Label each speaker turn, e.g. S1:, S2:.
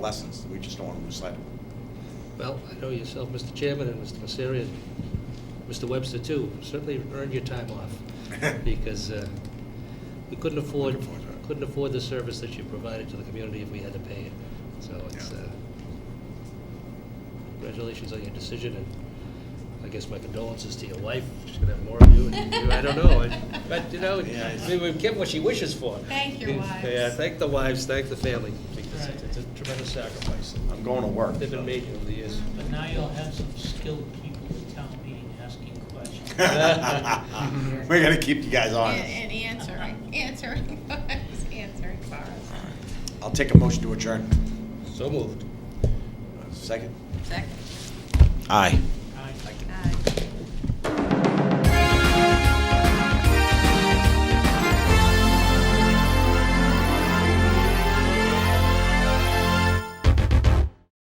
S1: lessons. We just don't want to lose sight of them.
S2: Well, I know yourself, Mr. Chairman, and Mr. Messeri, and Mr. Webster, too, certainly earned your time off, because uh, we couldn't afford,
S1: Looking forward to it.
S2: couldn't afford the service that you provided to the community if we had to pay it. So it's,
S1: Yeah.
S2: uh, congratulations on your decision, and I guess my condolences to your wife, she's gonna have more of you, and you- I don't know, I- but, you know,
S1: Yeah,
S2: I mean, we've kept what she wishes for.
S3: Thank your wives.
S2: Yeah, thank the wives, thank the family, because it's it's a tremendous sacrifice
S1: I'm going to work.
S2: they've been made over the years.
S3: Mm-hmm.
S4: But now you'll have some skilled people at town meeting asking questions.
S1: We're gonna keep you guys honest.
S3: And and answering, answering, answering for us.
S1: I'll take a motion to adjourn.
S2: So moved.
S1: Second?
S3: Second. uh,
S1: Aye.
S4: Aye.
S3: Aye.